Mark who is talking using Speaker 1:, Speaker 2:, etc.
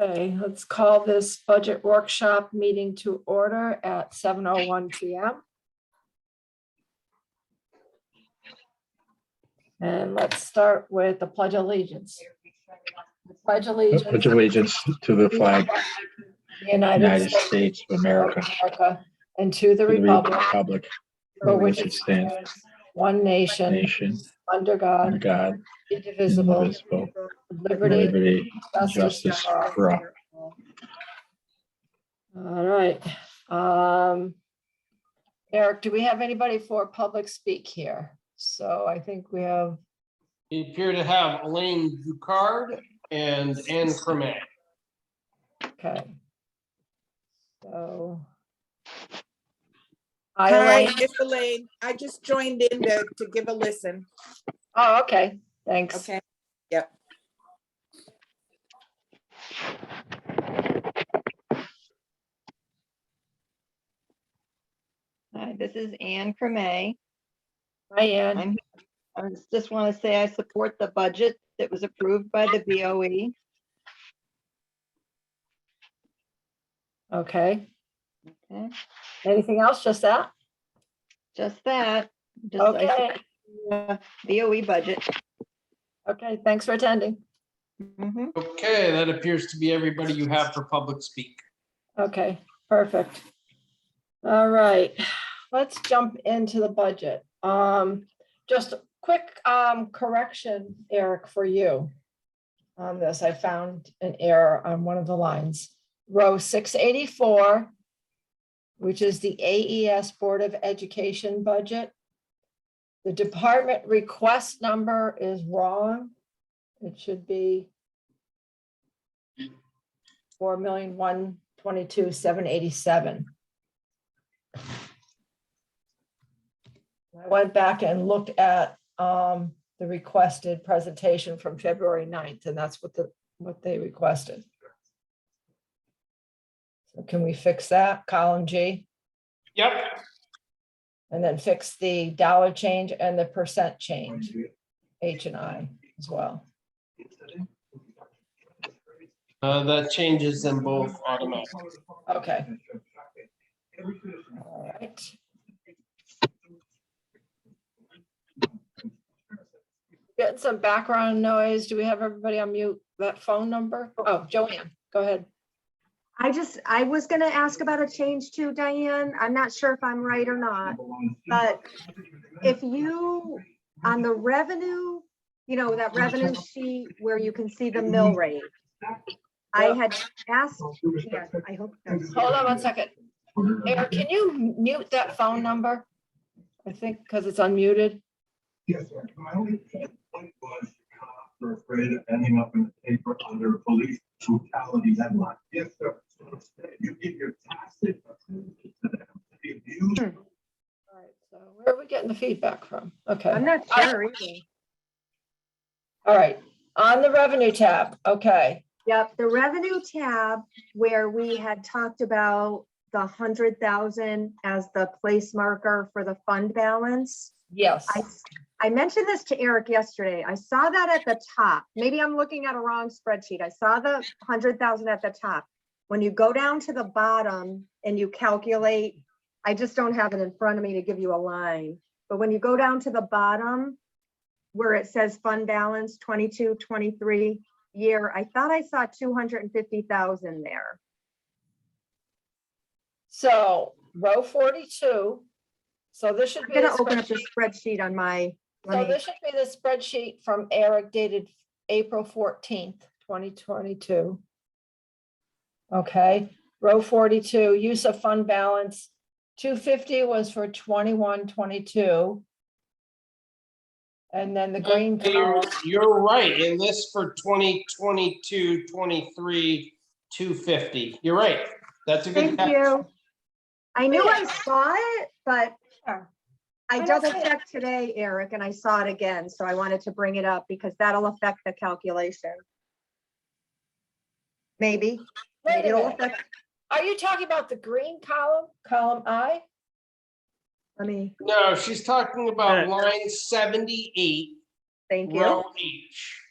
Speaker 1: Okay, let's call this budget workshop meeting to order at seven oh one PM. And let's start with the pledge of allegiance. Pledge allegiance.
Speaker 2: Pledge allegiance to the flag of
Speaker 1: the
Speaker 2: the
Speaker 1: United
Speaker 2: United
Speaker 1: States
Speaker 2: States of
Speaker 1: of
Speaker 2: America,
Speaker 1: America and to the
Speaker 2: to the
Speaker 1: republic
Speaker 2: republic
Speaker 1: for
Speaker 2: for
Speaker 1: which it
Speaker 2: which it stands,
Speaker 1: stands, one nation,
Speaker 2: nation,
Speaker 1: under
Speaker 2: under
Speaker 1: God,
Speaker 2: God,
Speaker 1: indivisible,
Speaker 2: indivisible,
Speaker 1: liberty,
Speaker 2: liberty, and
Speaker 1: justice for all.
Speaker 2: for all.
Speaker 1: All right. um, Eric, do we have anybody for public speak here? So I think we have,
Speaker 3: We appear to have Elaine Ducard and Anne Cremant.
Speaker 1: okay. So. Hi,
Speaker 4: Hi,
Speaker 1: Elaine.
Speaker 4: it's Elaine. I just joined in to, to give a listen.
Speaker 1: Oh, okay, thanks.
Speaker 4: Okay.
Speaker 5: Hi, Uh, this is Anne Cremay.
Speaker 1: Hi, Ann.
Speaker 5: I'm, I just want to say I support the budget that was approved by the E. BOE.
Speaker 1: Okay.
Speaker 5: Okay.
Speaker 1: Anything else, just that?
Speaker 5: Just that. just I
Speaker 1: Okay,
Speaker 5: support the uh, BOE E budget.
Speaker 1: okay, thanks for attending.
Speaker 5: Mhm.
Speaker 3: Okay, that appears to be everybody you have for public speak.
Speaker 1: Okay, perfect. All right, let's jump into the budget. Um, just a quick um correction, Eric, for you. On this, I found an error on one of the lines, row six eighty-four, which is the AES Board of Education budget. The department request number is wrong. It should be four million, one twenty-two, seven eighty-seven. I went back and looked at um the requested presentation from February 9th, and that's what the, what they requested. So Can we fix that, column G,
Speaker 3: Yep,
Speaker 1: and then fix the dollar change and the percent change, H and I as well?
Speaker 3: uh, that changes them both automatically.
Speaker 1: Okay. All right. Getting some background noise. Do we have everybody on mute? That phone number? Oh, Joanne, go ahead.
Speaker 6: I just, I was gonna ask about a change too, Diane. I'm not sure if I'm right or not, but if you, on the revenue, you know, that revenue sheet where you can see the mill rate. I had asked, yeah, I hope, that's-
Speaker 1: Hold on one second. Eric, can you mute that phone number? I think because it's unmuted.
Speaker 7: Yes, sir. My only point was, uh, we're afraid of ending up in the paper under police brutality headline. Yes, sir. You give your tacit approval to them. If
Speaker 1: All
Speaker 7: you
Speaker 1: right. So Where are we getting the feedback from? Okay.
Speaker 6: I'm not sure either.
Speaker 1: All right. On the revenue tab. Okay.
Speaker 6: Yep, the revenue tab where we had talked about the hundred thousand as the place marker for the fund balance.
Speaker 1: Yes.
Speaker 6: I, s- I mentioned this to Eric yesterday. I saw that at the top. Maybe I'm looking at a wrong spreadsheet. I saw the hundred thousand at the top. When you go down to the bottom and you calculate, I just don't have it in front of me to give you a line. But when you go down to the bottom, where it says fund balance 22, 23 year, I thought I saw two hundred and fifty thousand there.
Speaker 1: So row forty-two. So this should
Speaker 6: I'm
Speaker 1: be. the
Speaker 6: gonna open up the
Speaker 1: spreadsheet-
Speaker 6: spreadsheet on my,
Speaker 1: So
Speaker 6: let me,
Speaker 1: this should be the spreadsheet from Eric dated April fourteenth, twenty twenty-two. Okay, row forty-two, use of fund balance, two fifty was for twenty-one, twenty-two. And then the green
Speaker 3: You're,
Speaker 1: column,
Speaker 3: you're right, in this for 2022, 23, 250. You're right. That's a good
Speaker 6: thank
Speaker 3: catch.
Speaker 6: you. I knew I saw it, but
Speaker 1: I
Speaker 6: I
Speaker 1: don't
Speaker 6: double
Speaker 1: see it.
Speaker 6: checked today, Eric, and I saw it again, so I wanted to bring it up because that'll affect the calculation. Maybe,
Speaker 1: wait a
Speaker 6: maybe it'll
Speaker 1: minute,
Speaker 6: affect,
Speaker 1: are you talking about the green column, column I?
Speaker 6: let me,
Speaker 3: No, she's talking about line 78,
Speaker 6: thank you.
Speaker 3: row H.